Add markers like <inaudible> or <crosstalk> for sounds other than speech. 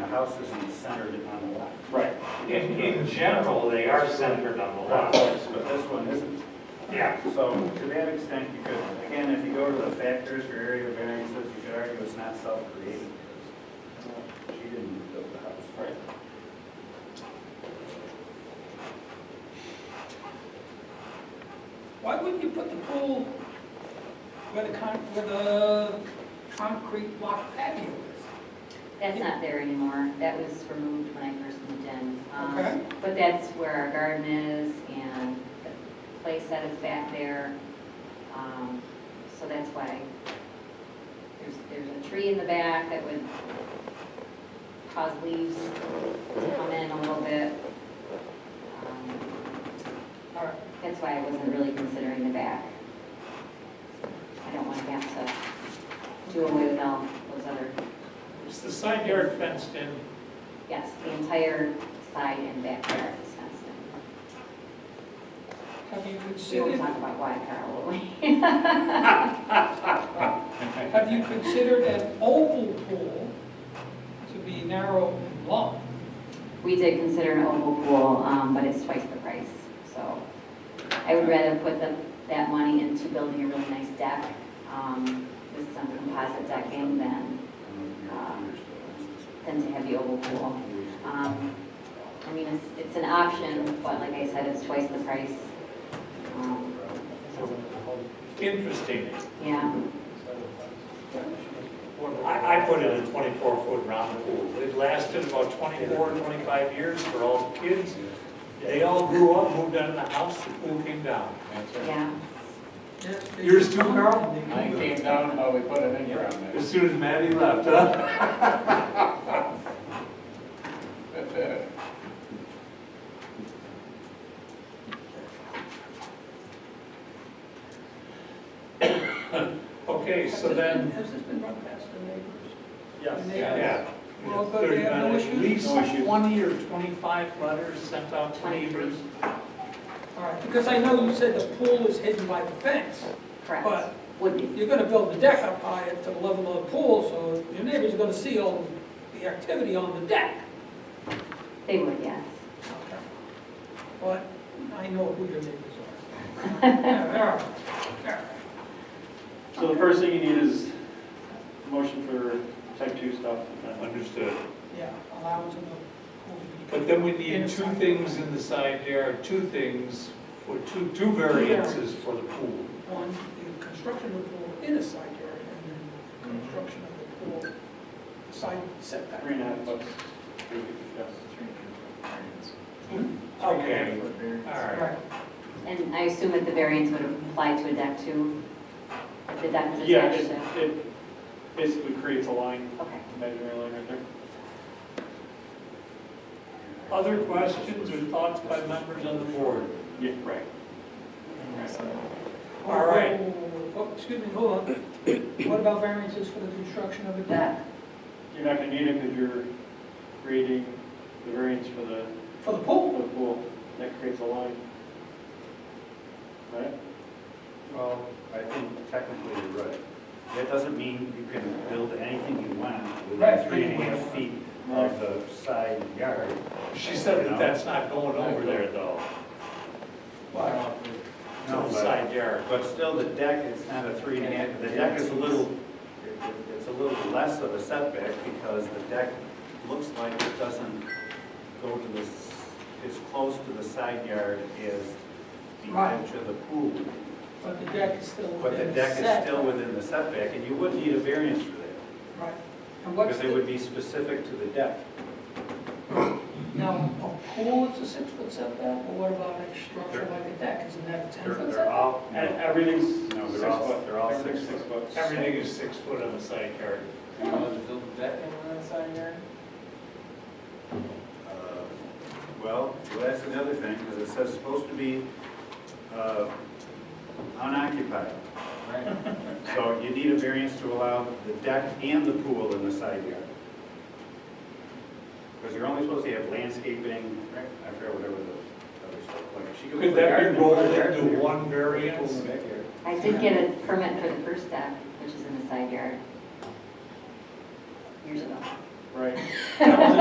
houses in the center on the lot. Right. In, in general, they are centered on the lot. But this one isn't. Yeah, So to that extent, you could, again, if you go to the factors for area variances, you could argue it's not self-created. She didn't build the house. Right. Why wouldn't you put the pool where the con, where the concrete block patio is? That's not there anymore. That was removed when I first moved in. Um, Okay. But that's where our garden is and the place that is back there. Um, So that's why there's, there's a tree in the back that would cause leaves to come in a little bit. Um, All right, That's why I wasn't really considering the back. I don't want to have to do away with all those other Is the side yard fenced in? Yes, the entire side and back yard is fenced in. have you We will considered, talk about why, Carl, will we? have you considered an oval pool to be narrow and long? <laughs> We did consider an oval pool, um, but it's twice the price, so I would rather put the, that money into building a really nice deck, um, with some composite decking than, than to have the oval pool. Um, I mean, it's, it's an option, but like I said, it's twice the price. Um, Interesting. Yeah, I, I put in a 24-foot round pool. It lasted about 24, 25 years for all the kids. They all grew up, moved out of the house, the pool came down. yeah. Yours too, Carl? Mine came down while we put an in ground As soon as Maddie left, huh? there. <laughs> Okay, so then, Has this been run past the neighbors? Yes. yeah. Well, good, they have no There's been At issues? least No issues. 20 or 25 letters sent out to neighbors. All right, because I know you said the pool is hidden by the fence, Correct, but would be. you're gonna build the deck up high to the level of the pool, so your neighbors are gonna see all the activity on the deck. They would, yes. But I know who your neighbors <laughs> are. Yeah, There are, there are. So the first thing you need is motion for type two stuff. Understood. Yeah, allowance of the pool to be. But then we need two things in the side yard, two things, for two, two variances for the pool. One, the construction of the pool in a side yard, and then the construction of the pool side setback. Three and a half bucks. Okay, all Right. right. And I assume that the variance would apply to a deck too? If the deck was Yeah, attached it, to? it basically creates a line, Okay. imaginary line right there. Other questions or thoughts by members on the board? Yeah, right. All right. Oh, oh, Excuse me, hold on. What about variances for the construction of a deck? You're not gonna need it because you're creating the variance for the, For the for pool? the pool. That creates a line. Right? Well, I think technically you're right. That doesn't mean you can build anything you want Right. within three and a half feet of the side yard. She said that that's not going over there though, to No, but- the side yard. But still, the deck is not a three and a half, the deck is a little, it- it- it's a little less of a setback because the deck looks like it doesn't go to the, s- as close to the side yard as the Right. edge of the pool. But the deck is still But the within the deck set. is still within the setback, and you would need a variance for that, Right. And what's because it would the, be specific to the deck. now, a pool is a six-foot setback, but what about a structure like a deck? Isn't that a They're, ten-foot they're setback? all, And everything's No, six they're all- foot. they're all six Everything's foot. six foot. Everything is six foot on the side yard. You want to build a deck in that side yard? uh, well, that's another thing, because it says it's supposed to be uh, unoccupied. Right. <laughs> So you need a variance to allow the deck and the pool in the side yard. Because you're only supposed to have landscaping, I forget whatever the other stuff, like she could. Could put a that garden be in rolled the garden into here. one Pool variance? in the backyard. I did get a permit for the first deck, which is in the side yard, years ago. Right.